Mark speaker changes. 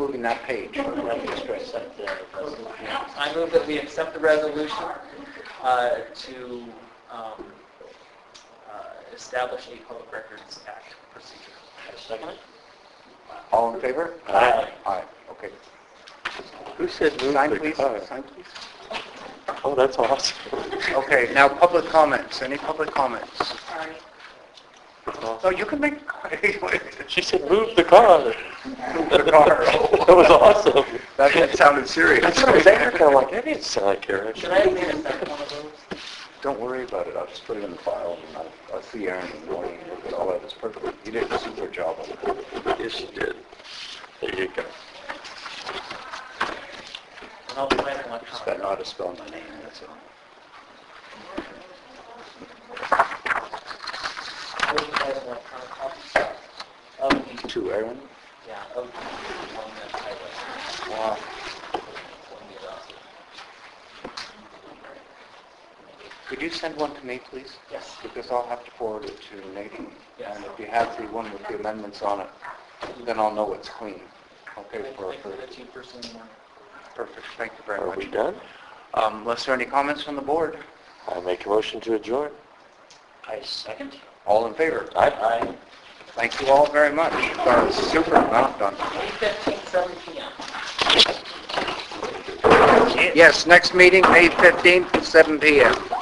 Speaker 1: that page, let me stress that.
Speaker 2: I move that we accept the resolution uh, to um, uh, establish a Public Records Act procedure.
Speaker 1: Second? All in favor?
Speaker 2: Aye.
Speaker 1: Aye, okay.
Speaker 3: Who said move
Speaker 1: Sign
Speaker 3: the
Speaker 1: please,
Speaker 3: car?
Speaker 1: sign please.
Speaker 3: Oh, that's awesome.
Speaker 1: Okay, now public comments, any public comments?
Speaker 4: Sorry.
Speaker 1: No, you can make,
Speaker 3: She said move the car.
Speaker 1: the car.
Speaker 3: That was awesome.
Speaker 1: that that sounded serious.
Speaker 3: That's what I was after. I'm like, I didn't sound Karen.
Speaker 2: Should I have made a second one of those?
Speaker 1: Don't worry about it, I'll just put it in the file, and I'll, I'll see Aaron in the morning, and look at all that, it's perfect. You did a super job on it.
Speaker 3: Yes, she did. There you go.
Speaker 2: And I'll plan it
Speaker 1: Just
Speaker 2: electronically.
Speaker 1: don't know how to spell my name, that's all.
Speaker 2: I'll plan it electronically. Of the,
Speaker 1: To Aaron?
Speaker 2: yeah, of the one that I was,
Speaker 1: Wow.
Speaker 2: when we adopted.
Speaker 1: Could you send one to me, please?
Speaker 2: Yes.
Speaker 1: Because I'll have to forward it to Nadine.
Speaker 2: Yes.
Speaker 1: And if you have the one with the amendments on it, then I'll know it's clean. Okay, for,
Speaker 2: Thank you
Speaker 1: for,
Speaker 2: for the two person one.
Speaker 1: perfect, thank you very
Speaker 3: Are we
Speaker 1: much.
Speaker 3: done?
Speaker 1: Um, unless there are any comments from the board?
Speaker 3: I make a motion to adjourn.
Speaker 1: I second. All in favor?
Speaker 3: Aye.
Speaker 1: Thank you all very much. That was super, well done.
Speaker 2: 8:15, 7 PM.
Speaker 1: Yes, next meeting, May 15th, 7 PM.